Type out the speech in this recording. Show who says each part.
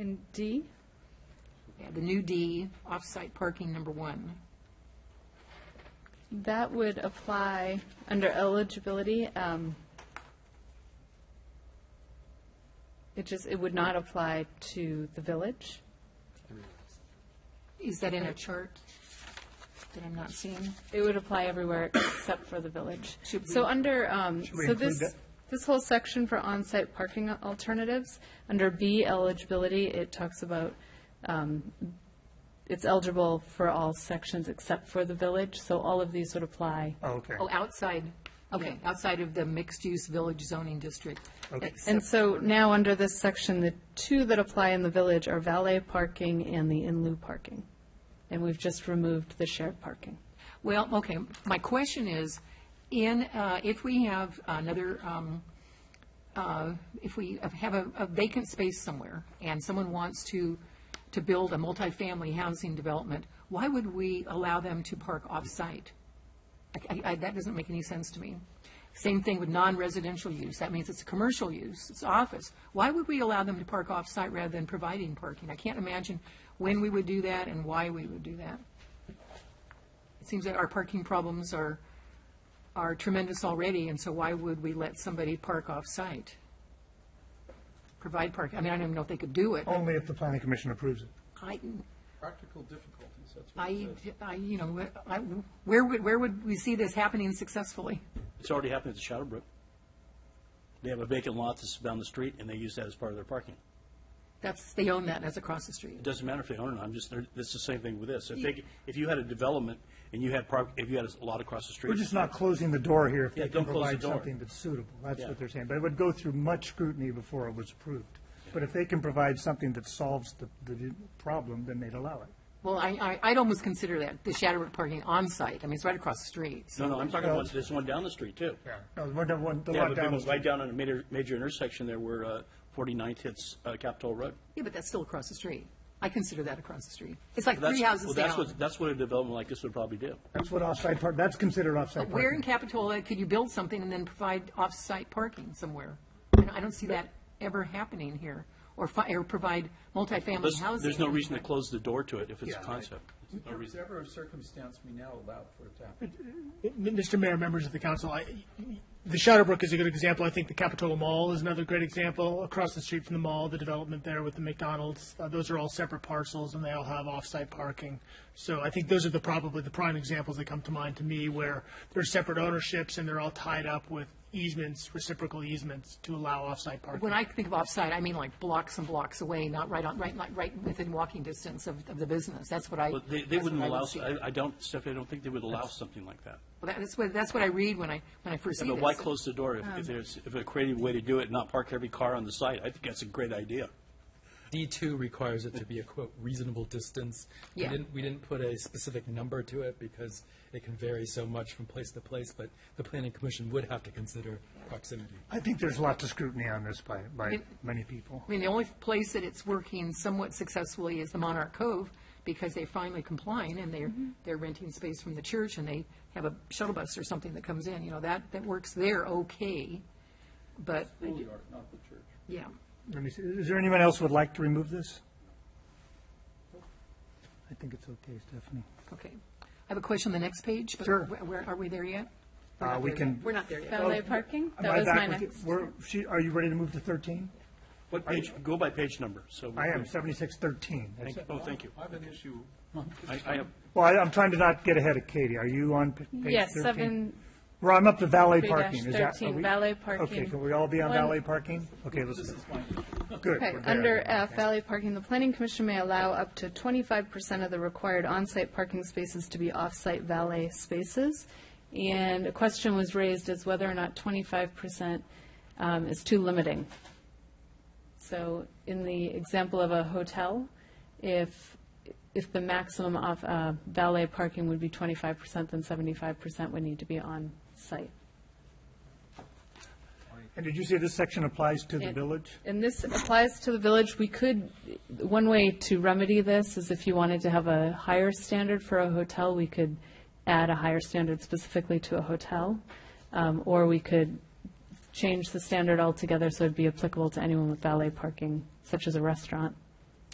Speaker 1: in D?
Speaker 2: Yeah, the new D, off-site parking, number one.
Speaker 1: That would apply under eligibility. um, It just, it would not apply to the village.
Speaker 2: Is that in a chart that I'm not seeing?
Speaker 1: It would apply everywhere except for the village.
Speaker 2: Should
Speaker 1: So
Speaker 2: we-
Speaker 1: under, um,
Speaker 3: we
Speaker 1: so
Speaker 3: include
Speaker 1: this,
Speaker 3: that?
Speaker 1: this whole section for on-site parking alternatives, under B eligibility, it talks about, um, it's eligible for all sections except for the village, so all of these would apply.
Speaker 3: Oh, okay.
Speaker 2: Oh, outside, okay, outside of the mixed-use village zoning district.
Speaker 3: Okay.
Speaker 1: And
Speaker 2: Except-
Speaker 1: so now, under this section, the two that apply in the village are valet parking and the in lieu parking. And we've just removed the shared parking.
Speaker 2: Well, okay, my question is, in, uh, if we have another, um, uh, if we have a a vacant space somewhere, and someone wants to, to build a multifamily housing development, why would we allow them to park off-site? I- I- I- That doesn't make any sense to me. Same thing with non-residential use, that means it's a commercial use, it's office. Why would we allow them to park off-site rather than providing parking? I can't imagine when we would do that and why we would do that. It seems that our parking problems are, are tremendous already, and so why would we let somebody park off-site? Provide parking, I mean, I don't even know if they could do it.
Speaker 4: Oh.
Speaker 3: Only if the planning commission approves it.
Speaker 2: I,
Speaker 5: Practical difficulties, that's what
Speaker 2: I,
Speaker 5: it says.
Speaker 2: I, you know, I, where would, where would we see this happening successfully?
Speaker 6: It's already happened at the Shadowbrook. They have a vacant lot that's down the street, and they use that as part of their parking.
Speaker 2: That's, they own that, and that's across the street.
Speaker 6: It doesn't matter if they own it, I'm just, they're- it's the same thing with this. If they, if you had a development and you had park, if you had a lot across the street.
Speaker 3: We're just not closing the door here if
Speaker 6: Yeah,
Speaker 3: they can
Speaker 6: don't close the
Speaker 3: provide
Speaker 6: door.
Speaker 3: something that's suitable. That's
Speaker 6: Yeah.
Speaker 3: what they're saying. But it would go through much scrutiny before it was approved. But if they can provide something that solves the, the problem, then they'd allow it.
Speaker 2: Well, I, I, I'd almost consider that, the Shadowbrook parking on-site, I mean, it's right across the street, so.
Speaker 6: No, no, I'm talking about this one down the street, too.
Speaker 3: No, we're not, one- the
Speaker 6: Yeah,
Speaker 3: lot
Speaker 6: but they
Speaker 3: down.
Speaker 6: went right down on a major, major intersection there where uh, 49th hits uh, Capitol Road.
Speaker 2: Yeah, but that's still across the street. I consider that across the street. It's like
Speaker 6: That's-
Speaker 2: three houses
Speaker 6: well, that's
Speaker 2: down.
Speaker 6: what- That's what a development like this would probably do.
Speaker 3: That's what offsite park, that's considered
Speaker 2: But
Speaker 3: offsite
Speaker 2: Where in
Speaker 3: parking.
Speaker 2: Capitola could you build something and then provide off-site parking somewhere? I don't- I don't see that ever happening here, or fi, or provide multifamily
Speaker 6: This-
Speaker 2: housing.
Speaker 6: There's no reason to close the door to it if it's a
Speaker 3: Yeah.
Speaker 6: concept. There's no
Speaker 5: Is
Speaker 6: reason.
Speaker 5: there ever a circumstance we now allow for it to happen?
Speaker 4: M- Mr. Mayor, members of the council, I, the Shadowbrook is a good example. I think the Capitola Mall is another great example. Across the street from the mall, the development there with the McDonald's, uh, those are all separate parcels and they all have off-site parking. So I think those are the probably the prime examples that come to mind to me where they're separate ownerships and they're all tied up with easements, reciprocal easements to allow off-site parking.
Speaker 2: When I think of off-site, I mean like blocks and blocks away, not right on, right, like, right within walking distance of, of the business. That's what I.
Speaker 6: But they,
Speaker 2: that's
Speaker 6: they
Speaker 2: what
Speaker 6: wouldn't
Speaker 2: I would
Speaker 6: allow,
Speaker 2: see.
Speaker 6: I, I don't, Stephanie, I don't think they would allow something like that.
Speaker 2: Well, that- That's what, that's what I read when I, when I first see
Speaker 6: But
Speaker 2: this.
Speaker 6: why close the door if, if there's, if a creative way to do it, not park every car on the site? I think that's a great idea.
Speaker 7: D2 requires it to be a quote reasonable distance. We
Speaker 2: Yeah.
Speaker 7: didn't, we didn't put a specific number to it because it can vary so much from place to place, but the planning commission would have to consider proximity.
Speaker 3: I think there's lots of scrutiny on this by, by
Speaker 2: It-
Speaker 3: many people.
Speaker 2: I mean, the only place that it's working somewhat successfully is the Monarch Cove, because they're finally complying, and they're, they're renting space from the church, and they have a shuttle bus or something that comes in, you know, that, that works there okay, but,
Speaker 5: Schoolyard, not the church.
Speaker 2: yeah.
Speaker 3: Let me see, is there anyone else who would like to remove this? I think it's okay, Stephanie.
Speaker 2: Okay. I have a question on the next page, but
Speaker 3: Sure.
Speaker 2: where- Where, are we there yet? We're
Speaker 3: Uh,
Speaker 2: not
Speaker 3: we
Speaker 2: there yet.
Speaker 3: can-
Speaker 2: We're not there yet.
Speaker 1: Valet parking?
Speaker 3: Oh, Am
Speaker 1: That
Speaker 3: I
Speaker 1: was
Speaker 3: back
Speaker 1: my
Speaker 3: with you?
Speaker 1: next.
Speaker 3: We're- she- Are you ready to move to 13?
Speaker 6: What page, go by page number, so.
Speaker 3: I am, 7613.
Speaker 6: Thank you. Oh, thank you.
Speaker 5: I have an issue.
Speaker 6: I, I have,
Speaker 3: Well, I- I'm trying to not get ahead of Katie. Are you on p- page 13?
Speaker 1: Yes, seven,
Speaker 3: Well, I'm up to valet
Speaker 1: Three dash
Speaker 3: parking. Is that- are
Speaker 1: 13,
Speaker 3: we-
Speaker 1: valet parking.
Speaker 3: Okay, can we all be on
Speaker 1: One-
Speaker 3: valet parking? Okay, let's, good.
Speaker 1: okay,
Speaker 3: we're there.
Speaker 1: under uh, F, valet parking, the planning commission may allow up to twenty-five percent of the required on-site parking spaces to be off-site valet spaces. And a question was raised as whether or not twenty-five percent um, is too limiting. So in the example of a hotel, if, if the maximum of uh, valet parking would be 25%, then 75% would need to be on-site.
Speaker 3: And did you say this section applies to the
Speaker 1: And-
Speaker 3: village?
Speaker 1: And this applies to the village. We could, one way to remedy this is if you wanted to have a higher standard for a hotel, we could add a higher standard specifically to a hotel. Um, Or we could change the standard altogether so it'd be applicable to anyone with valet parking, such as a restaurant.